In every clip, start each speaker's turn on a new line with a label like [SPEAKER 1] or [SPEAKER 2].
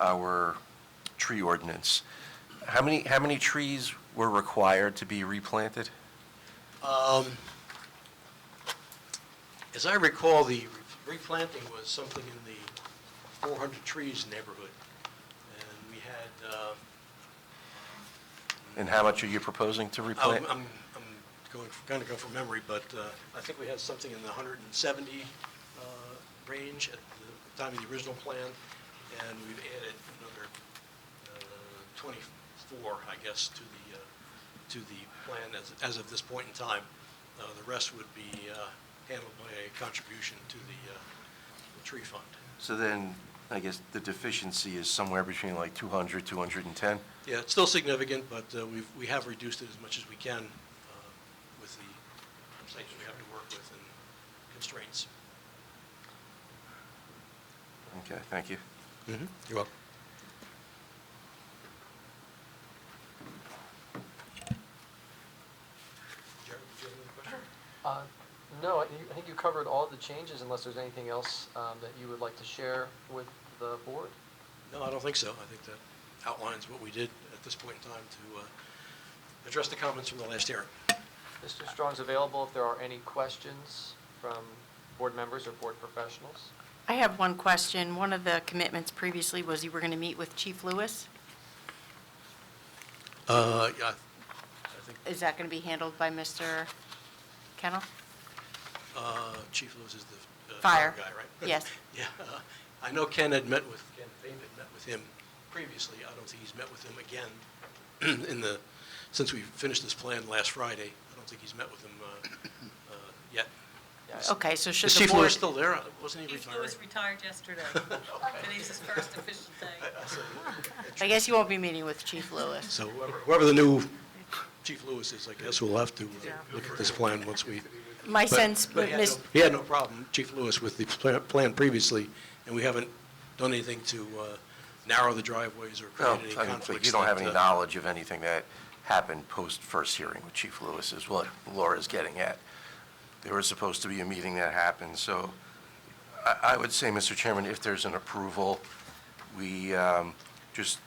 [SPEAKER 1] our tree ordinance. How many, how many trees were required to be replanted?
[SPEAKER 2] Um, As I recall, the replanting was something in the 400 trees neighborhood, and we had, uh,
[SPEAKER 1] And how much are you proposing to replant?
[SPEAKER 2] I'm, I'm I'm going, kind of go from memory, but uh, I think we had something in the 170 uh, range at the time of the original plan, and we've added another uh, 24, I guess, to the, uh, to the plan as, as of this point in time. Uh, The rest would be uh, handled by a contribution to the uh, tree fund.
[SPEAKER 1] So then, I guess the deficiency is somewhere between like 200, 210?
[SPEAKER 2] Yeah, it's still significant, but uh, we've, we have reduced it as much as we can uh, with the constraints we have to work with and constraints.
[SPEAKER 1] Okay, thank you.
[SPEAKER 2] Mm-hmm. You're welcome. Jared, do you have another question?
[SPEAKER 3] Uh, No, I you- I think you covered all the changes unless there's anything else um, that you would like to share with the board.
[SPEAKER 2] No, I don't think so. I think that outlines what we did at this point in time to uh, address the comments from the last hearing.
[SPEAKER 3] Mr. Strong's available if there are any questions from board members or board professionals.
[SPEAKER 4] I have one question. One of the commitments previously was you were going to meet with Chief Lewis.
[SPEAKER 2] Uh, yeah, I think
[SPEAKER 4] Is that going to be handled by Mr. Kennel?
[SPEAKER 2] Uh, Chief Lewis is the uh,
[SPEAKER 4] Fire.
[SPEAKER 2] fire guy, right?
[SPEAKER 4] Yes.
[SPEAKER 2] Yeah, uh, I know Ken had met with, Ken Fain had met with him previously. I don't think he's met with him again in the, since we finished this plan last Friday. I don't think he's met with him uh, uh, yet.
[SPEAKER 3] Yeah,
[SPEAKER 4] Okay, so should
[SPEAKER 2] Is
[SPEAKER 4] the
[SPEAKER 2] Chief Lewis still
[SPEAKER 4] board,
[SPEAKER 2] there? Wasn't he
[SPEAKER 5] Chief
[SPEAKER 2] retiring?
[SPEAKER 5] Lewis retired yesterday. Today's his first official day.
[SPEAKER 2] I- I said,
[SPEAKER 4] I guess you won't be meeting with Chief Lewis.
[SPEAKER 2] So whoever- whoever the new Chief Lewis is, I guess we'll have to uh, look at this plan once we.
[SPEAKER 4] My
[SPEAKER 2] but-
[SPEAKER 4] sense,
[SPEAKER 2] but he had
[SPEAKER 4] Ms.
[SPEAKER 2] no- He had no problem, Chief Lewis, with the pla- plan previously, and we haven't done anything to uh, narrow the driveways or
[SPEAKER 1] No,
[SPEAKER 2] create any
[SPEAKER 1] I mean,
[SPEAKER 2] conflicts.
[SPEAKER 1] but you don't have
[SPEAKER 2] that,
[SPEAKER 1] any
[SPEAKER 2] uh,
[SPEAKER 1] knowledge of anything that happened post-first hearing with Chief Lewis, is what Laura's getting at. There was supposed to be a meeting that happened, so I, I would say, Mr. Chairman, if there's an approval, we um, just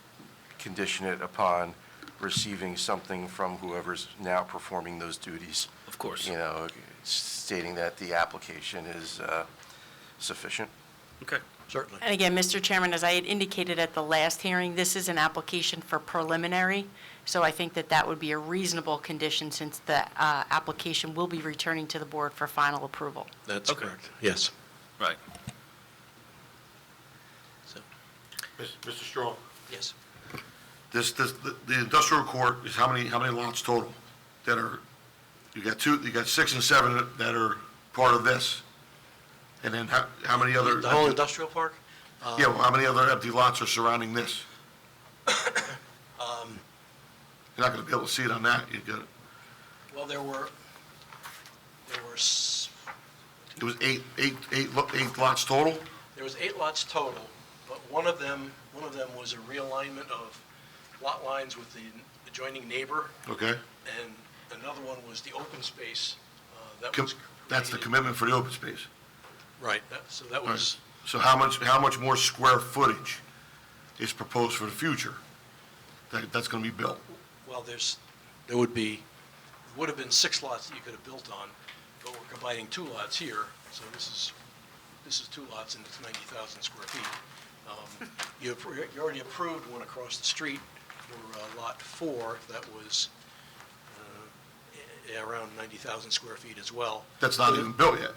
[SPEAKER 1] condition it upon receiving something from whoever's now performing those duties.
[SPEAKER 6] Of course.
[SPEAKER 1] You know, stating that the application is uh, sufficient.
[SPEAKER 6] Okay.
[SPEAKER 2] Certainly.
[SPEAKER 4] And again, Mr. Chairman, as I had indicated at the last hearing, this is an application for preliminary, so I think that that would be a reasonable condition since the uh, application will be returning to the board for final approval.
[SPEAKER 2] That's
[SPEAKER 6] Okay.
[SPEAKER 2] correct, yes.
[SPEAKER 6] Right.
[SPEAKER 2] So,
[SPEAKER 7] Mr. Strong,
[SPEAKER 2] Yes.
[SPEAKER 7] this, this, the- the industrial court is how many, how many lots total that are, you got two, you got six and seven that are part of this? And then how, how many other?
[SPEAKER 2] The whole industrial park?
[SPEAKER 7] Yeah, well, how many other empty lots are surrounding this?
[SPEAKER 2] Um.
[SPEAKER 7] You're not gonna be able to see it on that, you got,
[SPEAKER 2] Well, there were, there were, s-
[SPEAKER 7] it was eight, eight, eight, lo- eight lots total?
[SPEAKER 2] there was eight lots total, but one of them, one of them was a realignment of lot lines with the adjoining neighbor,
[SPEAKER 7] Okay,
[SPEAKER 2] And another one was the open space uh, that
[SPEAKER 7] Com-
[SPEAKER 2] was.
[SPEAKER 7] that's the
[SPEAKER 2] created-
[SPEAKER 7] commitment for the open space.
[SPEAKER 2] Right, that- so that was,
[SPEAKER 7] So how much, how much more square footage is proposed for the future that, that's gonna be built?
[SPEAKER 2] well, there's, there would be, would have been six lots that you could have built on, but we're combining two lots here, so this is, this is two lots and it's 90,000 square feet. Um, You appro- you already approved one across the street for uh, Lot 4, that was uh, a- around 90,000 square feet as well.
[SPEAKER 7] That's not
[SPEAKER 2] So-
[SPEAKER 7] even built yet.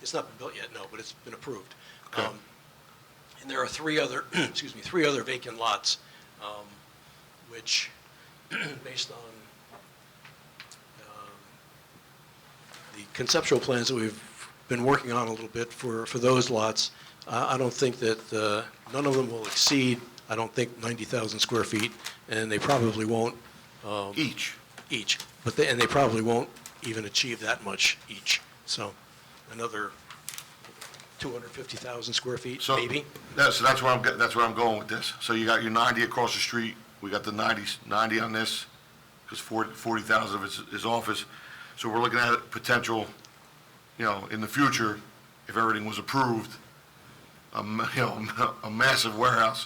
[SPEAKER 2] It's not been built yet, no, but it's been approved.
[SPEAKER 7] Okay.
[SPEAKER 2] Um, And there are three other, excuse me, three other vacant lots, um, which, based on um, the conceptual plans that we've been working on a little bit for, for those lots, I I don't think that, uh, none of them will exceed, I don't think, 90,000 square feet, and they probably won't
[SPEAKER 7] Each.
[SPEAKER 2] each, but they, and they probably won't even achieve that much each. So another 250,000 square feet,
[SPEAKER 7] So-
[SPEAKER 2] maybe?
[SPEAKER 7] Yeah, so that's where I'm, get- that's where I'm going with this. So you got your 90 across the street, we got the 90, 90 on this, because 40,000 of it's is office. So we're looking at a potential, you know, in the future, if everything was approved, a, ma- you know, a massive warehouse